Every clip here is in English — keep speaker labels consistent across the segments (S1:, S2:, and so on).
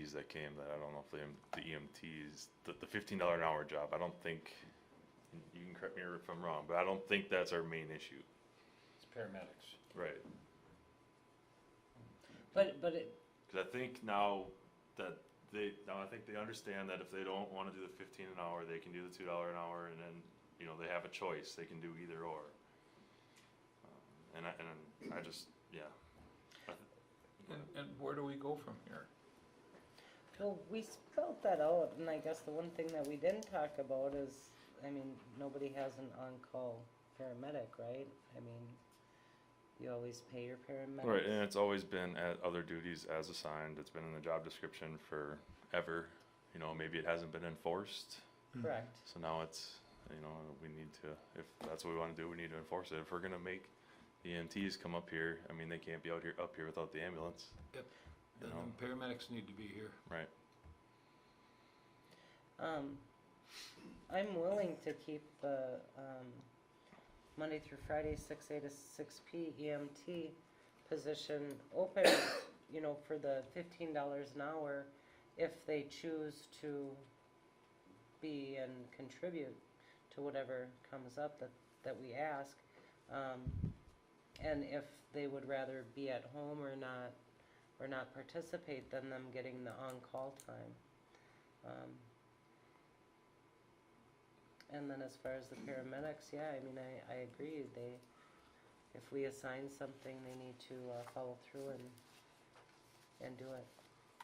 S1: EMTs that came that I don't know if they, the EMTs, the, the fifteen dollar an hour job, I don't think, you can correct me if I'm wrong, but I don't think that's our main issue.
S2: It's paramedics.
S1: Right.
S3: But, but it,
S1: Cause I think now that they, now I think they understand that if they don't wanna do the fifteen an hour, they can do the two dollar an hour and then, you know, they have a choice, they can do either or. Um, And I, and I just, yeah. I th-
S4: And, and where do we go from here?
S3: well, we spelled that out, and I guess the one thing that we didn't talk about is, I mean, nobody has an on-call paramedic, right? I mean, you always pay your paramedics.
S1: Right, and it's always been at other duties as assigned, it's been in the job description forever, you know, maybe it hasn't been enforced.
S3: Correct.
S1: So now it's, you know, we need to, if that's what we wanna do, we need to enforce it, if we're gonna make the EMTs come up here, I mean, they can't be out here, up here without the ambulance.
S4: Yep.
S1: You
S4: The
S1: know,
S4: paramedics need to be here.
S1: right,
S3: Um, I'm willing to keep the, um, Monday through Friday, six A to six P EMT position open, you know, for the fifteen dollars an hour if they choose to be and contribute to whatever comes up that, that we ask. Um, and if they would rather be at home or not, or not participate than them getting the on-call time. Um, and then as far as the paramedics, yeah, I mean, I, I agree, they, if we assign something, they need to, uh, follow through and, and do it.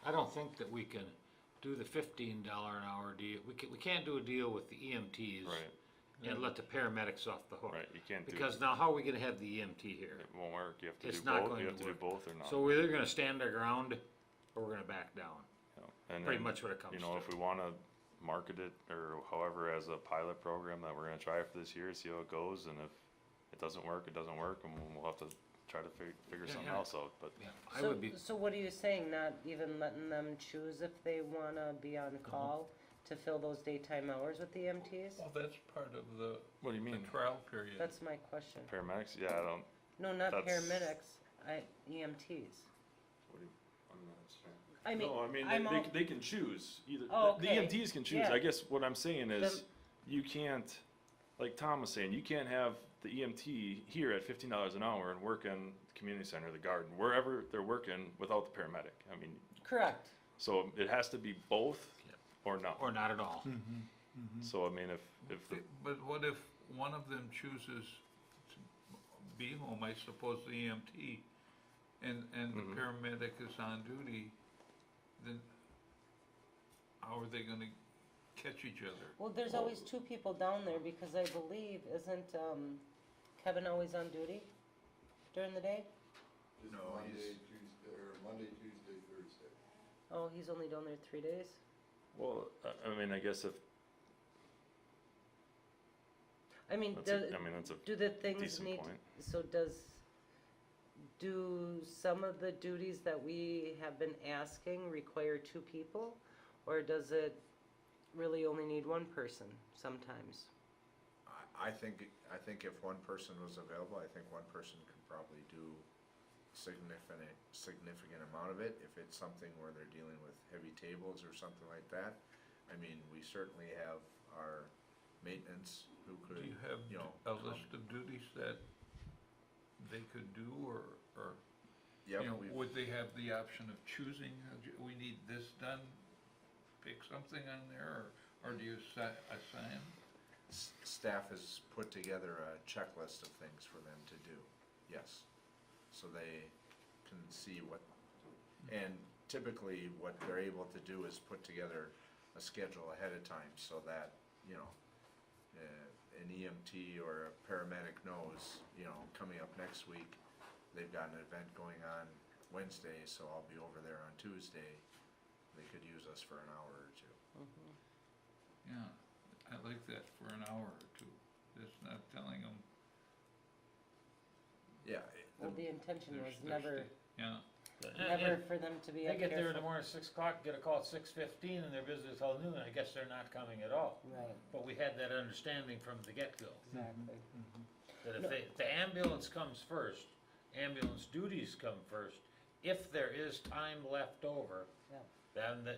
S4: I don't think that we can do the fifteen dollar an hour deal. We can, we can't do a deal with the EMTs.
S1: right,
S4: And let the paramedics off the hook.
S1: right, you can't do,
S4: Because now how are we gonna have the EMT here?
S1: it won't work, you have to
S4: It's
S1: do
S4: not
S1: both,
S4: going
S1: you
S4: to
S1: have to do
S4: work.
S1: both or not.
S4: So we're either gonna stand our ground or we're gonna back down.
S1: you know, and
S4: Pretty
S1: then,
S4: much what it comes
S1: You know,
S4: to.
S1: if we wanna market it or however as a pilot program that we're gonna try for this year, see how it goes, and if it doesn't work, it doesn't work, and we'll have to try to fig- figure
S4: Yeah,
S1: something
S4: yeah.
S1: else out, but
S4: Yeah, I
S3: So-
S4: would be,
S3: So what are you saying, not even letting them choose if they wanna be
S4: Uh-huh.
S3: on call to fill those daytime hours with the E EMTs?
S5: Well, that's part of the,
S1: What do you
S5: the
S1: mean?
S5: trial period.
S3: That's my question.
S1: Paramedics, yeah, I don't,
S3: No, not
S1: That's-
S3: paramedics, I, EMTs.
S1: what do you, I'm not sure.
S3: I mean,
S1: No, I mean,
S3: I'm
S1: they,
S3: all,
S1: they, they can choose either,
S3: Oh,
S1: the the
S3: okay.
S1: EMTs can choose,
S3: Yeah.
S1: I guess what I'm saying is,
S3: Then-
S1: you can't, like Tom was saying, you can't have the EMT here at fifteen dollars an hour and work in the community center, the garden, wherever they're working without the paramedic, I mean,
S3: correct,
S1: so it has to be both
S4: Yep.
S1: or not,
S4: or not at all.
S1: so I mean, if, if the,
S5: But what if one of them chooses to be home, I suppose the EMT, and, and the
S6: Mm-hmm.
S5: paramedic is on duty, then how are they gonna catch each other?
S3: well, there's
S1: Oh.
S3: always two people down there, because I believe, isn't, um, Kevin always on duty during the day?
S7: Just
S6: No,
S7: Monday,
S6: he's-
S7: Tuesday, or Monday, Tuesday, Thursday.
S3: Oh, he's only down there three days?
S1: well, I, I mean, I guess if,
S3: I mean,
S1: that's,
S3: do,
S1: a- I mean, that's a
S3: do the things
S1: decent
S3: need,
S1: point.
S3: so does, do some of the duties that we have been asking require two people? Or does it really only need one person sometimes?
S6: I, I think, I think if one person was available, I think one person could probably do significant, significant amount of it. If it's something where they're dealing with heavy tables or something like that, I mean, we certainly have our maintenance who
S5: Do
S6: could,
S5: you have
S6: you know.
S5: a
S6: um, come-
S5: list of duties that they could do, or, or,
S6: Yep,
S5: you know,
S6: we've-
S5: would they have the option of choosing, uh, j- we need this done, pick something on there, or, or do you assi- assign?
S6: s- staff has put together a checklist of things for them to do, yes. So they can see what, and typically what they're able to do is put together a schedule ahead of time so that, you know, uh, an EMT or a paramedic knows, you know, coming up next week, they've got an event going on Wednesday, so I'll be over there on Tuesday. They could use us for an hour or two.
S5: Yeah, I like that for an hour or two, just not telling them,
S6: Yeah,
S3: Well, the intention was
S5: There's- there's
S3: never,
S5: yeah,
S3: never for them to be
S2: They
S3: up
S2: get there
S3: here
S2: in the morning at six o'clock, get a call at six fifteen, and they're busy till noon, I guess they're not coming at all.
S3: for- Right,
S2: But we had that understanding from the get-go,
S3: exactly.
S2: that if they, if the ambulance comes first, ambulance duties come first, if there is time left over,
S3: Yeah.
S2: then the